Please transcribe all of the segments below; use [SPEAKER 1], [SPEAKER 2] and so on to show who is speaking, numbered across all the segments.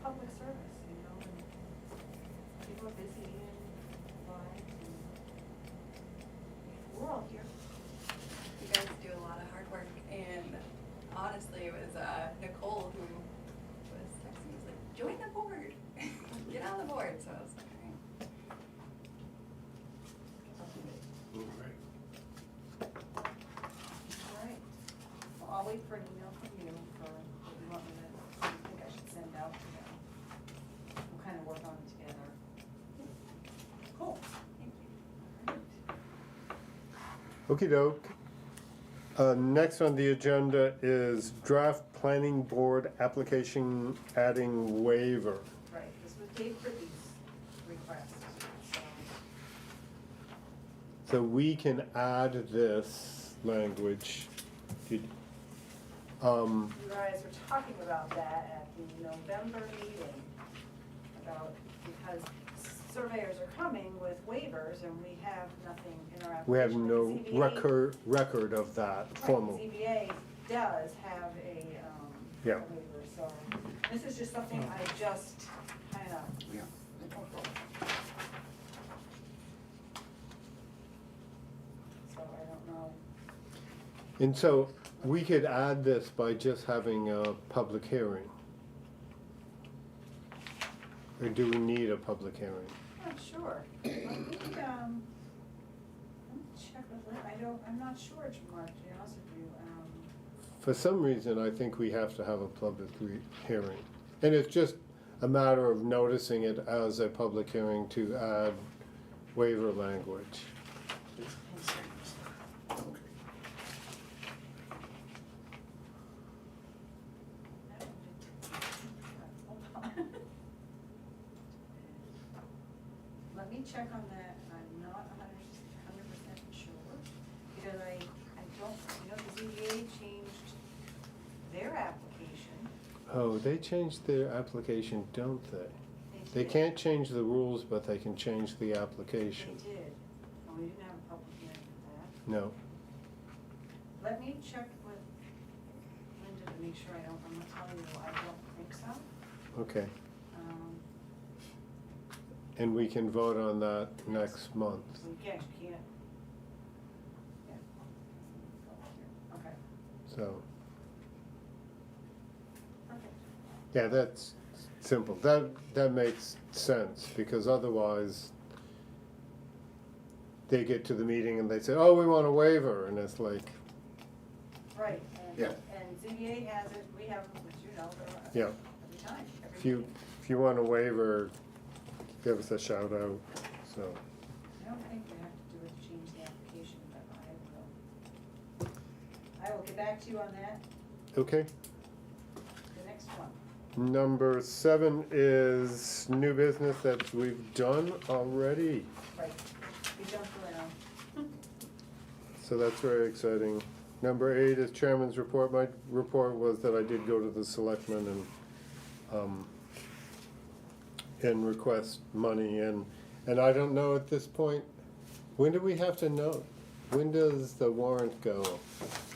[SPEAKER 1] service, you know, and people are busy and lives and we're all here.
[SPEAKER 2] You guys do a lot of hard work, and honestly, it was uh, Nicole who was texting me, was like, join the board, get on the board, so I was like, all right.
[SPEAKER 3] All right.
[SPEAKER 1] All right. Well, I'll wait for an email from you for what you want me to, what you think I should send out to them. We'll kind of work on it together. Cool. Thank you. All right.
[SPEAKER 4] Okey doke. Uh, next on the agenda is draft planning board application adding waiver.
[SPEAKER 1] Right, this was Dave Ridley's request, so,
[SPEAKER 4] So we can add this language. Did- Um,
[SPEAKER 1] you guys were talking about that at the November meeting, about, because surveyors are coming with waivers, and we have nothing in our application.
[SPEAKER 4] we have no
[SPEAKER 1] The ZBA
[SPEAKER 4] record, record of that
[SPEAKER 1] Right,
[SPEAKER 4] formal.
[SPEAKER 1] ZBA does have a, um, a
[SPEAKER 4] Yeah.
[SPEAKER 1] waiver, so this is just something I just kind of.
[SPEAKER 3] Yeah.
[SPEAKER 1] So I don't know,
[SPEAKER 4] And so we could add this by just having a public hearing. Or do we need a public hearing?
[SPEAKER 1] not sure, let me, um, let me check with Lynn, I don't, I'm not sure, Mark, to be honest with you, um,
[SPEAKER 4] For some reason, I think we have to have a public re- hearing. And it's just a matter of noticing it as a public hearing to add waiver language.
[SPEAKER 1] I don't think- hold on. Let me check on that, I'm not a hundred, hundred percent sure, because I, I don't, you know, the ZBA changed their application.
[SPEAKER 4] Oh, they changed their application, don't they? They
[SPEAKER 1] did.
[SPEAKER 4] can't change the rules, but they can change the
[SPEAKER 1] They
[SPEAKER 4] application.
[SPEAKER 1] did, and we didn't have a public hearing for that.
[SPEAKER 4] No.
[SPEAKER 1] Let me check with Linda to make sure I don't, I'm gonna tell you, I don't think so.
[SPEAKER 4] Okay.
[SPEAKER 1] Um,
[SPEAKER 4] And we can vote on that next month.
[SPEAKER 1] we can't, can't. Yeah. Go here. Okay,
[SPEAKER 4] So,
[SPEAKER 1] perfect.
[SPEAKER 4] yeah, that's simple. That, that makes sense because otherwise they get to the meeting and they say, oh, we want a waiver. And it's like,
[SPEAKER 1] Right, and,
[SPEAKER 3] Yeah.
[SPEAKER 1] and ZBA has it, we have, them, as you know, they're,
[SPEAKER 4] yeah,
[SPEAKER 1] uh, every time, every
[SPEAKER 4] if you,
[SPEAKER 1] meeting.
[SPEAKER 4] if you want a waiver, give us a shout out. So,
[SPEAKER 1] I don't think we have to do it, change the application, but I will. I will get back to you on that,
[SPEAKER 4] okay.
[SPEAKER 1] the next one.
[SPEAKER 4] Number seven is new business that we've done already.
[SPEAKER 1] Right. We jumped around.
[SPEAKER 4] So that's very exciting. Number eight is chairman's report. My report was that I did go to the selectmen and, um, and request money and, and I don't know at this point, when do we have to know? When does the warrant go?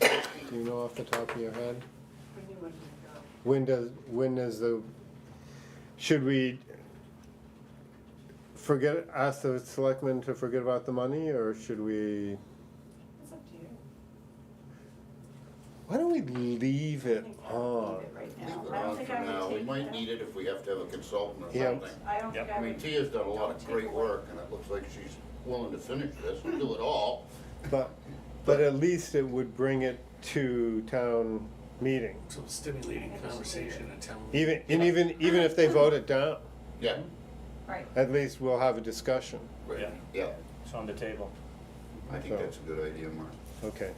[SPEAKER 4] Do you know off the top of your head?
[SPEAKER 1] We knew when to go.
[SPEAKER 4] When does, when is the, should we forget, ask the selectmen to forget about the money or should we?
[SPEAKER 1] It's up to you.
[SPEAKER 4] Why don't we leave
[SPEAKER 1] I
[SPEAKER 4] it
[SPEAKER 1] think I would
[SPEAKER 4] on?
[SPEAKER 1] leave it right
[SPEAKER 3] Leave
[SPEAKER 1] now.
[SPEAKER 3] it
[SPEAKER 1] I don't
[SPEAKER 3] on
[SPEAKER 1] think
[SPEAKER 3] for
[SPEAKER 1] I would
[SPEAKER 3] now. We
[SPEAKER 1] take
[SPEAKER 3] might
[SPEAKER 1] that.
[SPEAKER 3] need it if we have to have a consultant or
[SPEAKER 4] Yeah.
[SPEAKER 3] something.
[SPEAKER 1] I don't think
[SPEAKER 5] Yep.
[SPEAKER 1] I
[SPEAKER 3] I
[SPEAKER 1] would.
[SPEAKER 3] mean, Tia's done a lot
[SPEAKER 1] Don't
[SPEAKER 3] of
[SPEAKER 1] take
[SPEAKER 3] great
[SPEAKER 1] away.
[SPEAKER 3] work, and it looks like she's willing to finish this and do it all.
[SPEAKER 4] But, but at least it would bring it to town meeting,
[SPEAKER 5] So stimulating conversation and town.
[SPEAKER 4] even, and even, even if they vote it down,
[SPEAKER 3] Yeah,
[SPEAKER 1] Right,
[SPEAKER 4] at least we'll have a discussion,
[SPEAKER 3] right,
[SPEAKER 5] Yeah.
[SPEAKER 3] yeah.
[SPEAKER 5] It's on the table.
[SPEAKER 3] I think
[SPEAKER 4] So-
[SPEAKER 3] that's a good idea, Mark.
[SPEAKER 4] okay.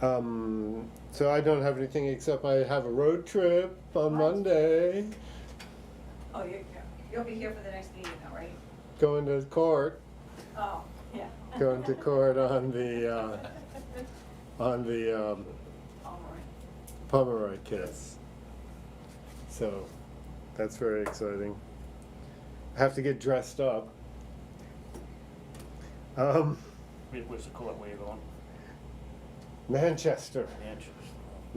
[SPEAKER 4] Um, so I don't have anything except I have a road trip on
[SPEAKER 1] What?
[SPEAKER 4] Monday,
[SPEAKER 1] oh, you, you'll be here for the next meeting though, right?
[SPEAKER 4] going to court,
[SPEAKER 1] Oh, yeah.
[SPEAKER 4] going to court on the, uh, on the, um,
[SPEAKER 1] All right.
[SPEAKER 4] Pomeroy Kiss. So that's very exciting. I have to get dressed up. Um,
[SPEAKER 5] Where's the court waiver on?
[SPEAKER 4] Manchester.
[SPEAKER 5] Manchester.